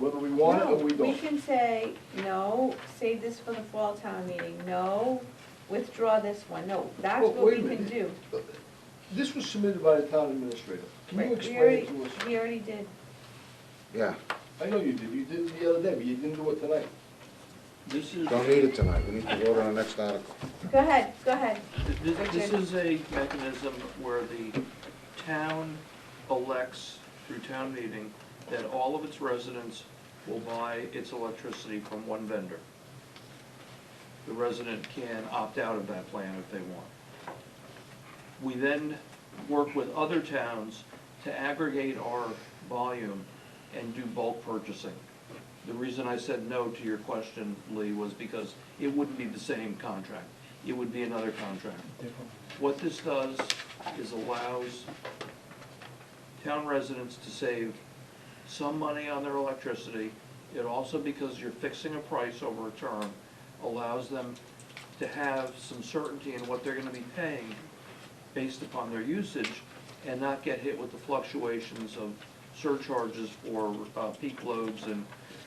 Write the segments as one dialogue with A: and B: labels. A: whether we want it or we
B: No, we
A: don't.
B: can say, no, save this for the fall town meeting, no, withdraw this one, no, that's
A: Well,
B: what we
A: wait a
B: can
A: minute.
B: do.
A: This was submitted by the town administrator. Can
B: Right,
A: you
B: we
A: explain
B: already-
A: it to us?
B: We already did,
C: Yeah,
A: I know you did, you did it the other day, but you didn't do it tonight.
D: This is,
C: don't need it tonight, we need to vote on the next article.
B: go ahead, go ahead,
D: th- th- this
B: Richard.
D: is a mechanism where the town elects through town meeting that all of its residents will buy its electricity from one vendor. The resident can opt out of that plan if they want. We then work with other towns to aggregate our volume and do bulk purchasing. The reason I said no to your question, Lee, was because it wouldn't be the same contract. It would be another contract. What this does is allows town residents to save some money on their electricity. It also, because you're fixing a price over a term, allows them to have some certainty in what they're gonna be paying based upon their usage and not get hit with the fluctuations of surcharges for uh, peak loads and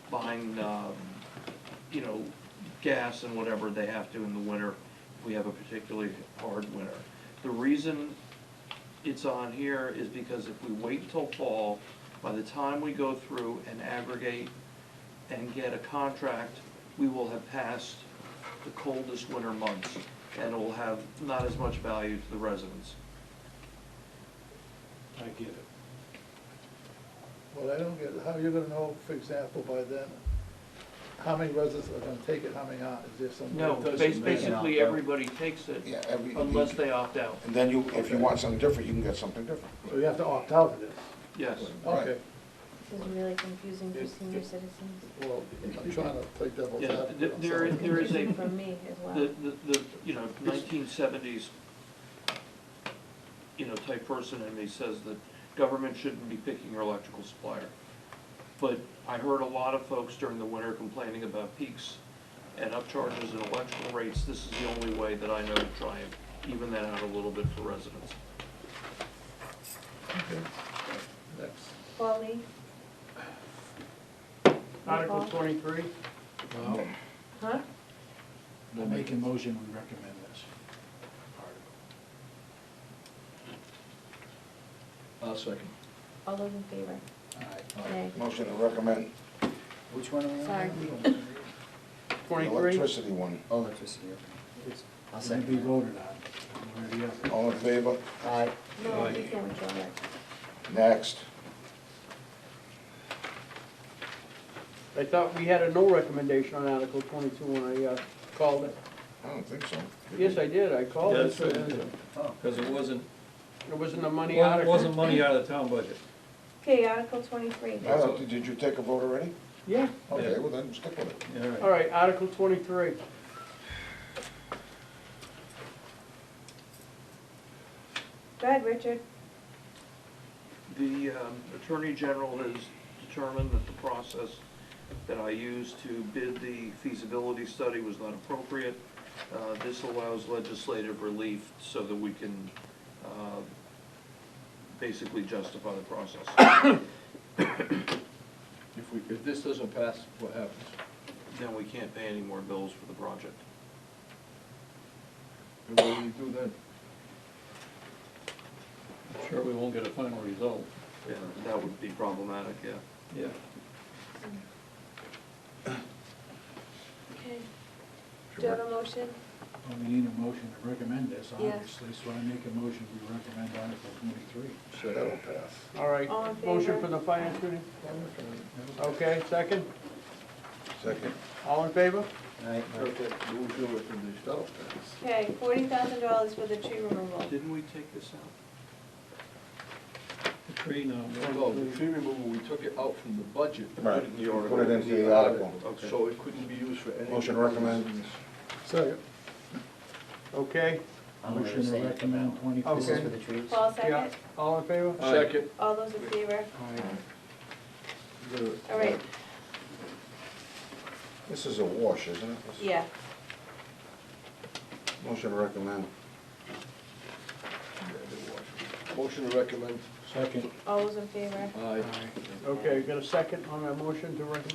D: buying, um, you know, gas and whatever they have to in the winter. if We have a particularly hard winter. The reason it's on here is because if we wait until fall, by the time we go through and aggregate and get a contract, we will have passed the coldest winter months, and it will have not as much value to the residents.
E: I get it.
F: Well, I don't get, how you're gonna know, for example, by then, how many residents are gonna take it, how many aren't, is there some?
D: No,
E: doesn't
D: bas-
E: matter.
D: basically, everybody takes it
C: Yeah, every,
D: unless they opt out,
C: and then you, if you want something different, you can get something different.
F: So you have to opt out of this,
D: yes.
F: okay,
G: This is really confusing for senior citizens.
F: well, I'm trying to play devil's
D: Yeah,
F: advocate.
D: th-
F: I'm
D: there is-
F: sorry.
D: there is a-
G: Confusing for me as well.
D: The, the, the, you know, nineteen seventies, you know, type person in me says that government shouldn't be picking your electrical supplier. But I heard a lot of folks during the winter complaining about peaks and upcharges and electrical rates. This is the only way that I know to try and even that out a little bit for residents.
F: Next.
B: Polly,
E: Article twenty-three,
F: Well,
B: huh?
E: I'll make a motion, we recommend this.
A: I'll second.
B: All those in favor?
E: Alright.
B: Nay.
C: Motion to recommend
E: Which one are we on?
B: Sorry.
C: the electricity one.
H: Oh, Electricity, okay. I'll
E: It's gonna be
H: second
E: voted on, one or the other.
C: All in favor?
H: that. Aye.
B: No, you can withdraw it.
C: Next.
I: I thought we had a no recommendation on Article twenty-two when I uh, called it.
C: I don't think so.
I: Yes, I did, I called it.
J: Yes, you did.
E: Oh,
J: Because it wasn't,
I: It wasn't a money
J: it wasn't
I: article.
J: money out of the town budget.
B: Okay, Article twenty-three.
C: I don't- Did you take a vote already?
I: Yeah,
C: Okay, well then stick with it.
J: All right.
I: all right, Article twenty-three.
B: Go ahead, Richard.
D: The um, Attorney General has determined that the process that I used to bid the feasibility study was not appropriate. Uh, This allows legislative relief so that we can uh, basically justify the process.
A: If we, if this doesn't pass, what happens?
D: Then we can't pay any more bills for the project.
A: And what do you do then?
J: I'm Sure, we won't get a final result.
D: Yeah, That would be problematic, yeah.
J: Yeah.
B: Okay. Do you have a motion?
E: Well, we need a motion to recommend this,
B: Yeah.
E: obviously, so I make a motion, we recommend Article twenty-three.
C: That'll pass.
I: All right,
B: All in favor?
I: motion for the finance committee? Okay, second,
C: Second.
I: all in favor?
H: Aye.
A: We'll do it in the- that'll pass.
B: Okay, forty thousand dollars for the tree removal.
D: Didn't we take this out?
J: The tree now.
A: No, the tree removal, we took it out from the budget. and
C: Right,
A: put it in
C: you
A: the
C: put it
A: article.
C: into the article.
D: Okay.
A: So it couldn't be used for any.
C: Motion to recommend.
F: Second.
I: Okay,
H: I'm gonna
E: Motion to
H: abstain from that
E: recommend
H: one.
E: twenty-four.
H: This is
I: Okay.
H: for the trees.
B: Paul,
I: yeah,
B: second?
I: all in favor?
A: Second.
B: All those in favor? All right,
C: This is a wash, isn't it? This-
B: yeah.
C: Motion to recommend.
A: Motion to recommend.
E: Second.
B: All those in favor?
A: Aye.
I: Okay, got a second on that motion to recommend